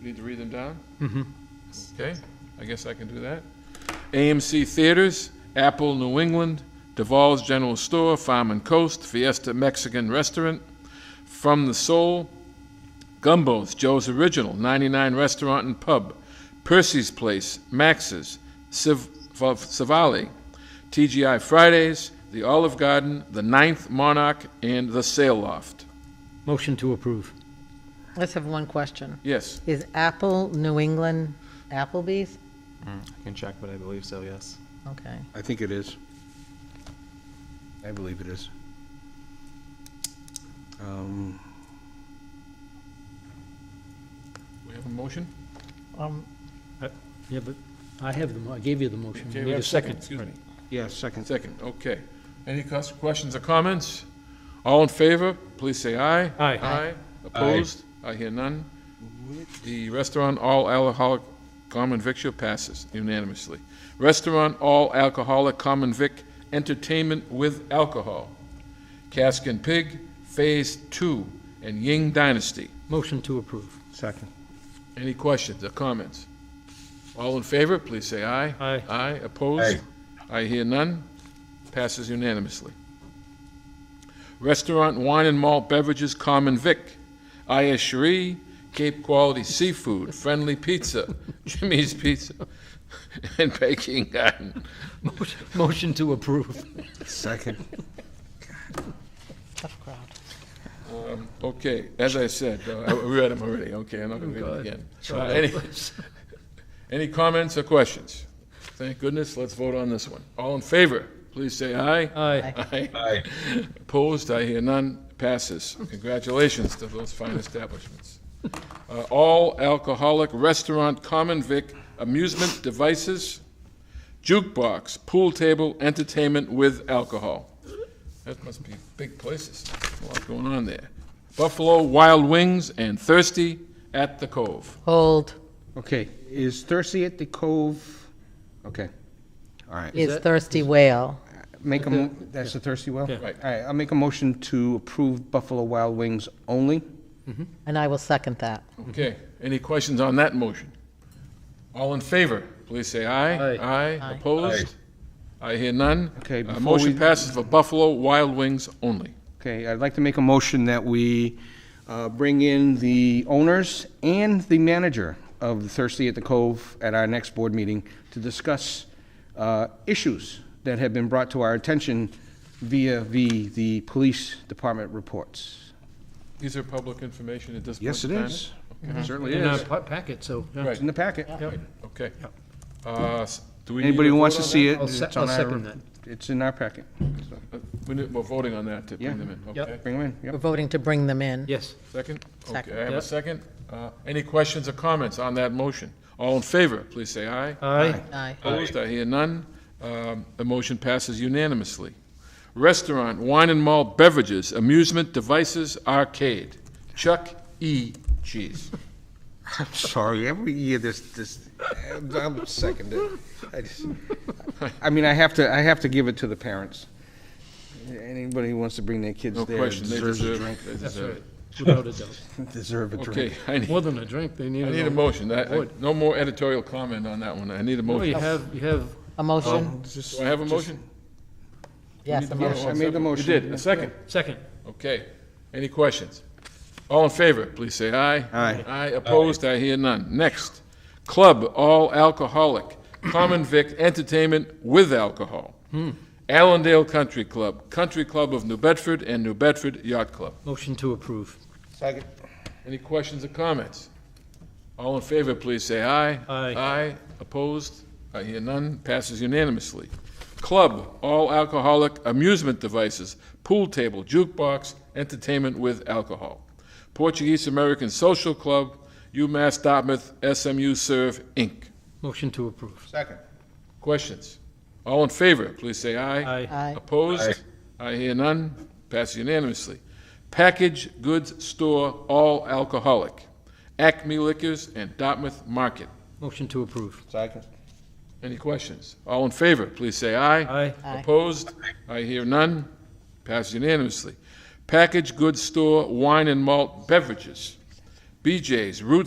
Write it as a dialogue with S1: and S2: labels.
S1: Need to read them down? Okay, I guess I can do that. AMC Theaters, Apple New England, Duval's General Store, Farm and Coast, Fiesta Mexican Restaurant, From the Soul, Gumbo's, Joe's Original, 99 Restaurant and Pub, Percy's Place, Max's, Civ- Fav- Savali, TGI Fridays, The Olive Garden, The Ninth Monarch, and The Sail Loft.
S2: Motion to approve.
S3: Let's have one question.
S1: Yes,
S3: Is Apple New England Applebee's?
S4: I can check, but I believe so, yes.
S3: Okay.
S5: I think it is. I believe it is. Um,
S1: we have a motion?
S3: Um,
S2: Yeah, but I have the, mo- I gave you the motion.
S1: Okay,
S2: You
S1: we
S2: need
S1: have
S2: a second.
S1: Excuse me.
S5: Yeah, second.
S1: Second, okay. Any cus- questions or comments? All in favor, please say aye.
S2: Aye.
S1: Aye. Opposed? I hear none. The restaurant all alcoholic common victual passes unanimously. Restaurant all alcoholic common vic entertainment with alcohol. Cask and Pig, Phase Two, and Ying Dynasty.
S2: Motion to approve.
S5: Second.
S1: Any questions or comments? All in favor, please say aye.
S2: Aye.
S1: Aye, opposed? I hear none. Passes unanimously. Restaurant Wine and Malt Beverages Common Vic, Ayah Cherie, Cape Quality Seafood, Friendly Pizza, Jimmy's Pizza, and Baking Garden.
S2: Motion- Motion to approve.
S5: Second.
S3: tough crowd.
S1: Okay, as I said, uh, I read them already, okay, I'm not gonna read it again. Uh, any- Any comments or questions? Thank goodness, let's vote on this one. All in favor, please say aye.
S2: Aye.
S1: Aye. Opposed, I hear none, passes. Congratulations to those fine establishments. Uh, All alcoholic restaurant common vic amusement devices, jukebox, pool table, entertainment with alcohol. That must be big places, a lot going on there. Buffalo Wild Wings and Thirsty at the Cove.
S3: Hold.
S5: Okay, is Thirsty at the Cove? Okay, all right.
S3: It's Thirsty Whale.
S5: Make a, mo- that's the Thirsty Well?
S2: Yeah.
S5: Right. All right, I'll make a motion to approve Buffalo Wild Wings only.
S3: And I will second that.
S1: Okay, any questions on that motion? All in favor, please say aye.
S2: Aye.
S1: Aye, opposed? I hear none.
S5: Okay,
S1: Uh,
S5: before
S1: Motion
S5: we-
S1: passes for Buffalo Wild Wings only.
S5: Okay, I'd like to make a motion that we uh, bring in the owners and the manager of Thirsty at the Cove at our next board meeting to discuss uh, issues that have been brought to our attention via the, the police department reports.
S1: These are public information at this point
S5: Yes,
S1: in
S5: it
S1: time?
S5: is. Certainly
S2: In our
S5: is.
S2: pa- packet, so. yeah.
S1: Right.
S5: It's in the packet.
S1: Right, Okay. Uh, s- Do we need
S5: Anybody
S1: a
S5: who wants
S1: vote
S5: to
S1: on
S5: see it,
S2: uh, I'll se-
S5: it's on
S2: I'll second
S5: our,
S2: that.
S5: it's in our packet. So,
S1: that? Uh, we need- We're voting on that to
S5: Yeah.
S1: bring them in,
S2: Yep.
S1: okay?
S5: Bring them in, yep.
S3: We're voting to bring them in.
S2: Yes.
S1: Second?
S3: Second.
S1: Okay, I have a
S2: Yep.
S1: second. Uh, Any questions or comments on that motion? All in favor, please say aye.
S2: Aye.
S3: Aye.
S1: Opposed, I hear none. Um, The motion passes unanimously. Restaurant, wine and malt beverages, amusement devices, arcade. Chuck E. Cheese.
S5: I'm sorry, every year this, this, I'm- I'm seconded. I just, I mean, I have to, I have to give it to the parents. Anybody who wants to bring their kids
S1: No
S5: there
S1: question, they
S5: deserves a
S1: deserve
S5: drink,
S1: it. They deserve it.
S2: Without a doubt.
S5: deserve a
S1: Okay,
S5: drink.
S1: I need,
S2: More than a drink, they need.
S1: I need a motion. I- I- No more editorial comment on that one. I need a
S2: Oh, you
S1: motion.
S2: have, you have,
S3: A motion?
S1: Do I have a motion?
S3: Yes, a
S5: Yes, I
S3: motion.
S5: made the
S1: You
S5: motion.
S1: did, a second.
S2: second.
S1: Okay. Any questions? All in favor, please say aye.
S5: Aye.
S1: Aye, opposed, I hear none. Next, club, all alcoholic, common vic entertainment with alcohol. Allendale Country Club, Country Club of New Bedford, and New Bedford Yacht Club.
S2: Motion to approve.
S5: Second.
S1: Any questions or comments? All in favor, please say aye.
S2: Aye.
S1: Aye, opposed, I hear none, passes unanimously. Club, all alcoholic amusement devices, pool table, jukebox, entertainment with alcohol. Portuguese American Social Club, UMass Dartmouth SMU Serve, Inc.
S2: Motion to approve.
S5: Second.
S1: Questions? All in favor, please say aye.
S2: Aye.
S3: Aye.
S1: Opposed? I hear none. Pass unanimously. Package Goods Store, all alcoholic. Acme Liquors and Dartmouth Market.
S2: Motion to approve.
S5: Second.
S1: Any questions? All in favor, please say aye.
S2: Aye.
S3: Aye.
S1: Opposed? I hear none. Pass unanimously. Package Goods Store, wine and malt beverages. BJ's, Roots